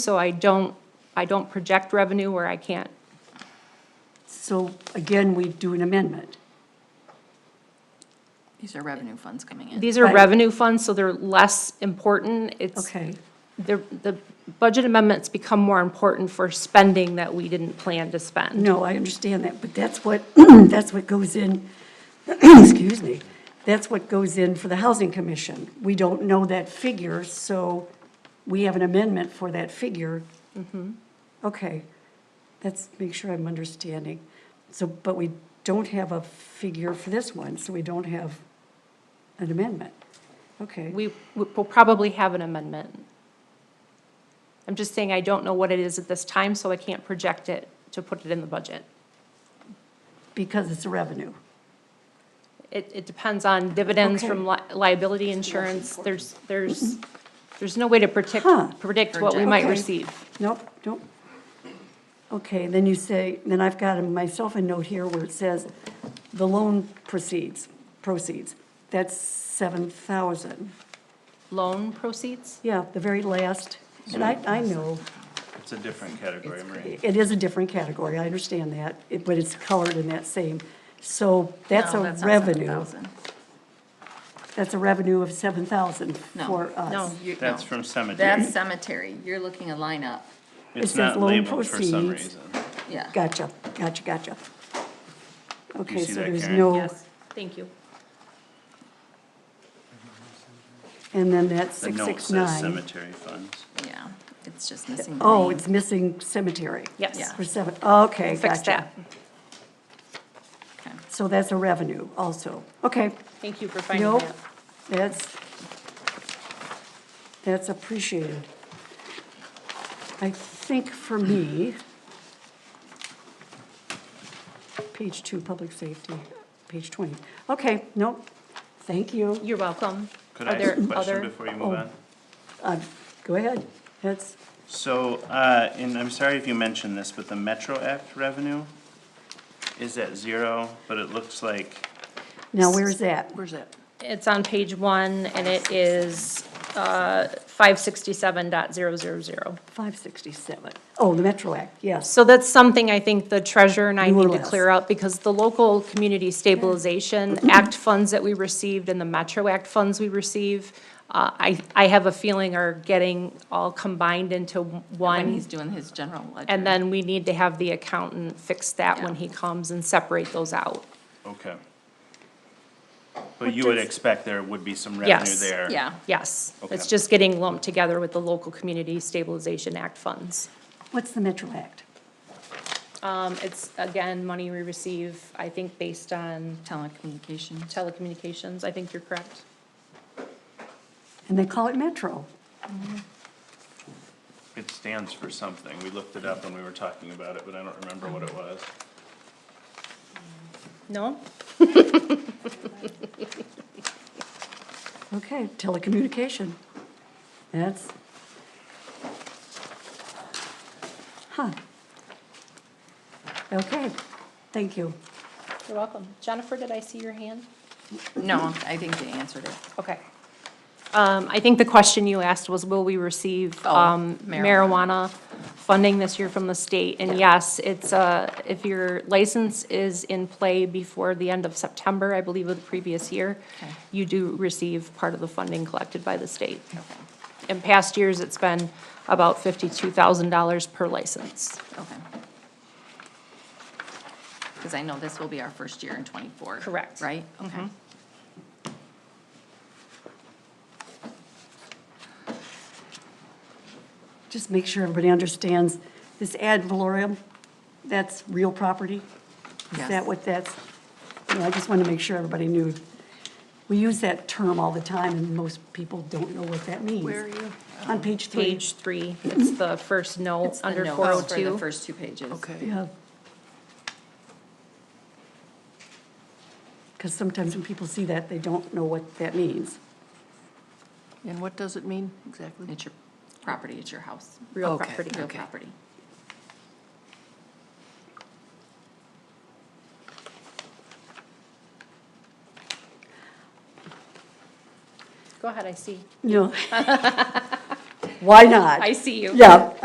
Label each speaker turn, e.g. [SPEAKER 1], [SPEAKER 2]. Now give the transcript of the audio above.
[SPEAKER 1] So I don't, I don't project revenue where I can't.
[SPEAKER 2] So again, we do an amendment.
[SPEAKER 3] These are revenue funds coming in.
[SPEAKER 1] These are
[SPEAKER 2] Right.
[SPEAKER 1] revenue funds, so they're less important. It's,
[SPEAKER 2] Okay,
[SPEAKER 1] the, the budget amendments become more important for spending that we didn't plan to spend.
[SPEAKER 2] no, I understand that, but that's what, that's what goes in, excuse me, that's what goes in for the Housing Commission. We don't know that figure, so we have an amendment for that figure. Okay, let's make sure I'm understanding. So, but we don't have a figure for this one, so we don't have an amendment. Okay,
[SPEAKER 1] We will probably have an amendment. I'm just saying I don't know what it is at this time, so I can't project it to put it in the budget.
[SPEAKER 2] because it's a revenue.
[SPEAKER 1] It, it depends on dividends
[SPEAKER 2] Okay. Mm-hmm.
[SPEAKER 1] from li- liability insurance. There's, there's, there's no way to predict,
[SPEAKER 2] Huh.
[SPEAKER 1] predict what we might
[SPEAKER 2] Okay.
[SPEAKER 1] receive.
[SPEAKER 2] Nope, nope. Okay, then you say, then I've got myself a note here where it says, the loan proceeds, proceeds. That's seven thousand.
[SPEAKER 1] Loan proceeds?
[SPEAKER 2] Yeah, the very last, and I, I know,
[SPEAKER 4] It's a different category, Marie.
[SPEAKER 2] it is a different category, I understand that, it- but it's colored in that same. So that's
[SPEAKER 3] No,
[SPEAKER 2] a
[SPEAKER 3] not
[SPEAKER 2] revenue,
[SPEAKER 3] 7,000.
[SPEAKER 2] that's a revenue of seven thousand
[SPEAKER 3] No.
[SPEAKER 2] for us.
[SPEAKER 3] No, you-
[SPEAKER 4] That's
[SPEAKER 3] no.
[SPEAKER 4] from cemetery.
[SPEAKER 3] That's cemetery. You're looking a line up.
[SPEAKER 4] It's
[SPEAKER 2] says
[SPEAKER 4] not
[SPEAKER 2] loan
[SPEAKER 4] labeled for some
[SPEAKER 2] proceeds.
[SPEAKER 4] reason.
[SPEAKER 3] Yeah.
[SPEAKER 2] Gotcha, gotcha, gotcha. Okay,
[SPEAKER 4] see
[SPEAKER 2] so
[SPEAKER 4] that,
[SPEAKER 2] there's
[SPEAKER 4] Karen?
[SPEAKER 2] no,
[SPEAKER 1] Yes, thank you.
[SPEAKER 2] and then that's
[SPEAKER 4] The
[SPEAKER 2] six
[SPEAKER 4] note
[SPEAKER 2] six
[SPEAKER 4] says
[SPEAKER 2] nine.
[SPEAKER 4] cemetery funds.
[SPEAKER 3] Yeah. It's just missing. the
[SPEAKER 2] Oh,
[SPEAKER 3] name.
[SPEAKER 2] it's missing cemetery.
[SPEAKER 1] Yes.
[SPEAKER 3] Yeah.
[SPEAKER 2] For seven, okay,
[SPEAKER 1] Fix
[SPEAKER 2] gotcha.
[SPEAKER 1] that.
[SPEAKER 3] Okay.
[SPEAKER 2] So that's a revenue also. Okay,
[SPEAKER 1] Thank you for finding
[SPEAKER 2] nope,
[SPEAKER 1] that.
[SPEAKER 2] that's, that's appreciated. I think for me, page two, public safety, page 20. Okay, nope, thank you.
[SPEAKER 1] You're welcome.
[SPEAKER 4] Could
[SPEAKER 1] Are
[SPEAKER 4] I ask
[SPEAKER 1] there
[SPEAKER 4] a question
[SPEAKER 1] other-
[SPEAKER 4] before you
[SPEAKER 2] Oh.
[SPEAKER 4] move on?
[SPEAKER 2] Go ahead, that's,
[SPEAKER 4] So, uh, and I'm sorry if you mentioned this, but the Metro Act revenue is at zero, but it looks like,
[SPEAKER 2] now where's that?
[SPEAKER 3] Where's it?
[SPEAKER 1] It's on page one, and it is uh, five sixty-seven dot zero zero zero.
[SPEAKER 2] 567. Oh, the Metro Act, yes.
[SPEAKER 1] So that's something I think the treasurer and I
[SPEAKER 2] You
[SPEAKER 1] need
[SPEAKER 2] will
[SPEAKER 1] to clear up, because the local community stabilization act funds that we received and the Metro Act funds we receive, uh, I, I have a feeling are getting all combined into
[SPEAKER 3] When
[SPEAKER 1] one.
[SPEAKER 3] he's doing his general ledger.
[SPEAKER 1] And then we need to have the accountant fix that when he comes and separate those out.
[SPEAKER 4] okay. But you would
[SPEAKER 2] does-
[SPEAKER 4] expect there would be some revenue
[SPEAKER 1] Yes.
[SPEAKER 4] there.
[SPEAKER 3] Yeah.
[SPEAKER 1] Yes, it's
[SPEAKER 4] Okay.
[SPEAKER 1] just getting lumped together with the local community stabilization act funds.
[SPEAKER 2] What's the Metro Act?
[SPEAKER 1] Um, it's, again, money we receive, I think, based on
[SPEAKER 3] Telecommunications.
[SPEAKER 1] telecommunications, I think you're correct.
[SPEAKER 2] And they call it Metro.
[SPEAKER 4] It stands for something. We looked it up when we were talking about it, but I don't remember what it was.
[SPEAKER 1] No?
[SPEAKER 2] Okay, telecommunication. That's. Huh. Okay, thank you.
[SPEAKER 1] You're welcome. Jennifer, did I see your hand?
[SPEAKER 3] No, I think they answered it.
[SPEAKER 1] Okay. Um, I think the question you asked was, will we receive
[SPEAKER 3] Oh,
[SPEAKER 1] um, marijuana
[SPEAKER 3] marijuana.
[SPEAKER 1] funding this year from the state? And yes, it's, uh, if your license is in play before the end of September, I believe of the previous year,
[SPEAKER 3] Okay.
[SPEAKER 1] you do receive part of the funding collected by the state.
[SPEAKER 3] Okay.
[SPEAKER 1] In past years, it's been about fifty-two thousand dollars per license.
[SPEAKER 3] Okay. Because I know this will be our first year in twenty-four.
[SPEAKER 1] Correct.
[SPEAKER 3] Right? Okay.
[SPEAKER 2] Just make sure everybody understands, this ad valorem, that's real property? Is
[SPEAKER 3] Yes.
[SPEAKER 2] that what that's? you know, I just want to make sure everybody knew. We use that term all the time, and most people don't know what that means. Where are you? On page three.
[SPEAKER 1] Page three, it's the first note
[SPEAKER 3] It's the
[SPEAKER 1] under
[SPEAKER 3] notes
[SPEAKER 1] four oh
[SPEAKER 3] For the
[SPEAKER 1] two.
[SPEAKER 3] first two pages. Okay.
[SPEAKER 2] Yeah. Because sometimes when people see that, they don't know what that means.
[SPEAKER 5] And what does it mean exactly?
[SPEAKER 3] It's your property, it's your house.
[SPEAKER 1] Real
[SPEAKER 5] Okay,
[SPEAKER 1] property.
[SPEAKER 3] Real property.
[SPEAKER 1] Go ahead, I see.
[SPEAKER 2] No. Why not?
[SPEAKER 1] I see you.
[SPEAKER 2] Yeah,